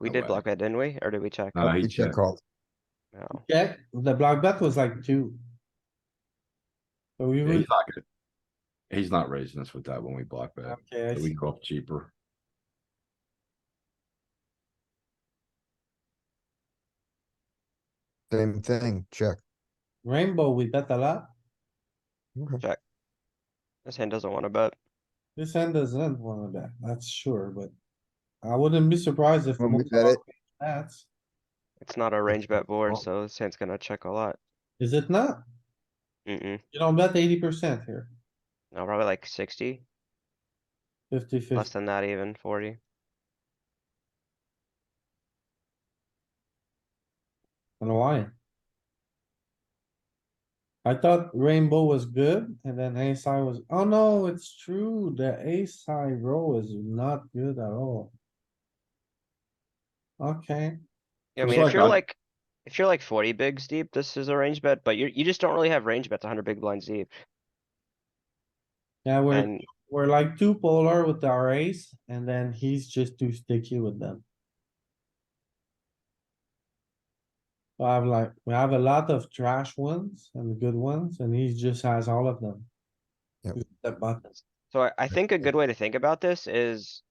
We No did way. block bet, didn't we? Or did we check? Uh, he he should checked. call. No. Check, the block bet was like two. So we Yeah, would, he's not gonna- He's not raising us with that when we block bet. okay, I We see. go up cheaper. Same thing, check. rainbow, we bet a lot. Okay. This hand doesn't wanna bet. This hand doesn't wanna bet, that's sure, but I wouldn't be surprised if. When we most of bet our it. bets- It's not a range bet board, Oh. so this hand's gonna check a lot. Is it not? Mm-mm. You don't bet eighty percent here, No, probably like sixty, fifty less fifty. than that even, forty. And why? I thought rainbow was good and then ace high was, oh no, it's true, the ace high row is not good at all. Okay, Yeah, I It's mean, if like you're I- like, if you're like forty bigs deep, this is a range bet, but you, you just don't really have range bets hundred big blinds deep. yeah, we're, And we're like too polar with our ace and then he's just too sticky with them. So I have like, we have a lot of trash ones and good ones and he just has all of them. Yep. The button. so I, I think a good way to think about this is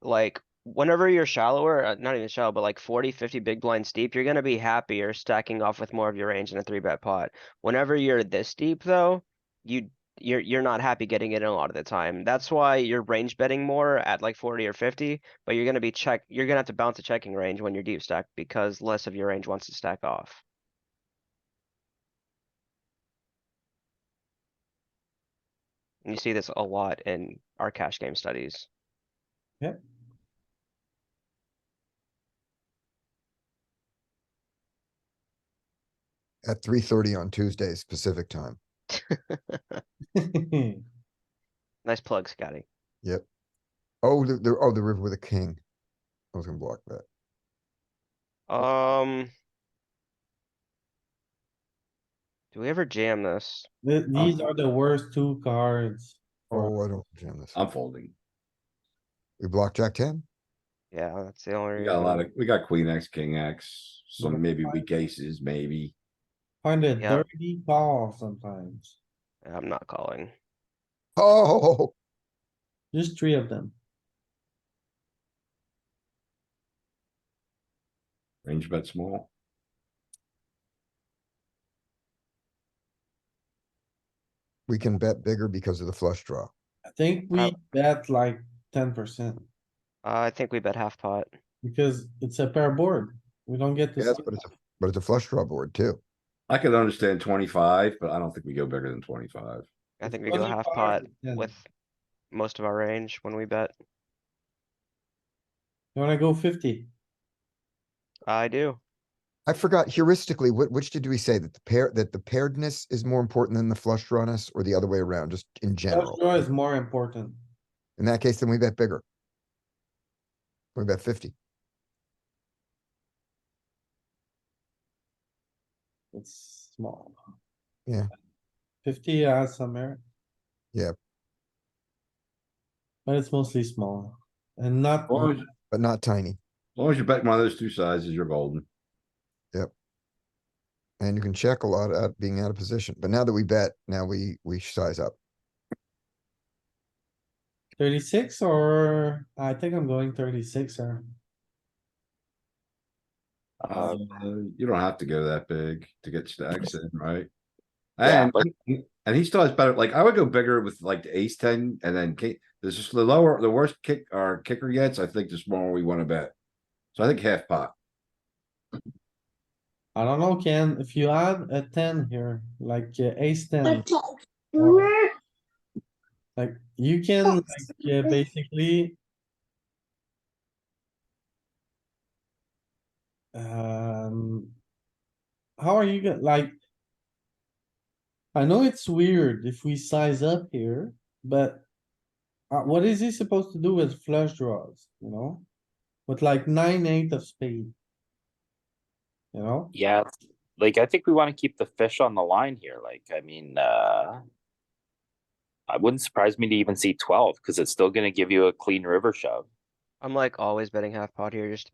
like, whenever you're shallower, uh, not even shallow, but like 40, 50 big blinds deep, you're gonna be happier stacking off with more of your range in a three bet pot. Whenever you're this deep though, you, you're, you're not happy getting it in a lot of the time. That's why you're range betting more at like forty or fifty, but you're gonna be check, you're gonna have to bounce a checking range when you're deep stacked because less of your range wants to stack off. And you see this a lot in our cash game studies. At three thirty on Tuesday, specific time. Nice plug, Scotty. Oh, the, the, oh, the river with a king. I was gonna block that. Um. Do we ever jam this? Th- These are the worst two cards. for- Oh, I don't jam this. Um I'm folding. We block jack ten? Yeah, that's the only We reason. got a lot of, we got queen X, king X, some maybe Five. weak aces, maybe. Find a Yeah. dirty call sometimes. I'm not calling. Oh, Just three of them. Range bet small. we can bet bigger because of the flush draw. I think we Uh, bet like ten percent Uh, I think we bet half pot. because it's a pair board. We don't get to. Yes, see but it's, that. a but it's a flush draw board too. I could understand twenty-five, but I don't think we go bigger than twenty-five. I It's think we go half 25 pot and 10. with most of our range when we bet. You wanna go fifty? I do. I forgot heuristically, what, which did we say that the pair, that the pairedness is more important than the flush drawness or the other way around, just in Flush general? draw is more important. In that case, then we bet bigger. We bet fifty. It's small. Yeah. Fifty has some merit. Yeah. But it's mostly small and not, As long as, as But not tiny, long as you bet one of those two sizes, you're golden. and you can check a lot out being out of position, but now that we bet, now we, we size up. thirty-six or I think I'm going thirty-six or. Uh, you don't have to go that big to get stacks in, right? Yeah, And, and he still has better, like, I would go bigger with like the ace ten and then king, this is the lower, the worse kick our kicker gets, I think the smaller we wanna bet. So I think half pot, I don't know, Ken, if you add a ten here, like uh, ace ten, like you can, like, uh, basically. Um. How are you gonna, like? I know it's weird if we size up here, but. Uh, what is he supposed to do with flush draws, you know? With like nine, eight of spade. You know? Yeah, like I think we want to keep the fish on the line here. Like, I mean, uh, I wouldn't surprise me to even see 12 because it's still going to give you a clean river shove. I'm like always betting half pot here just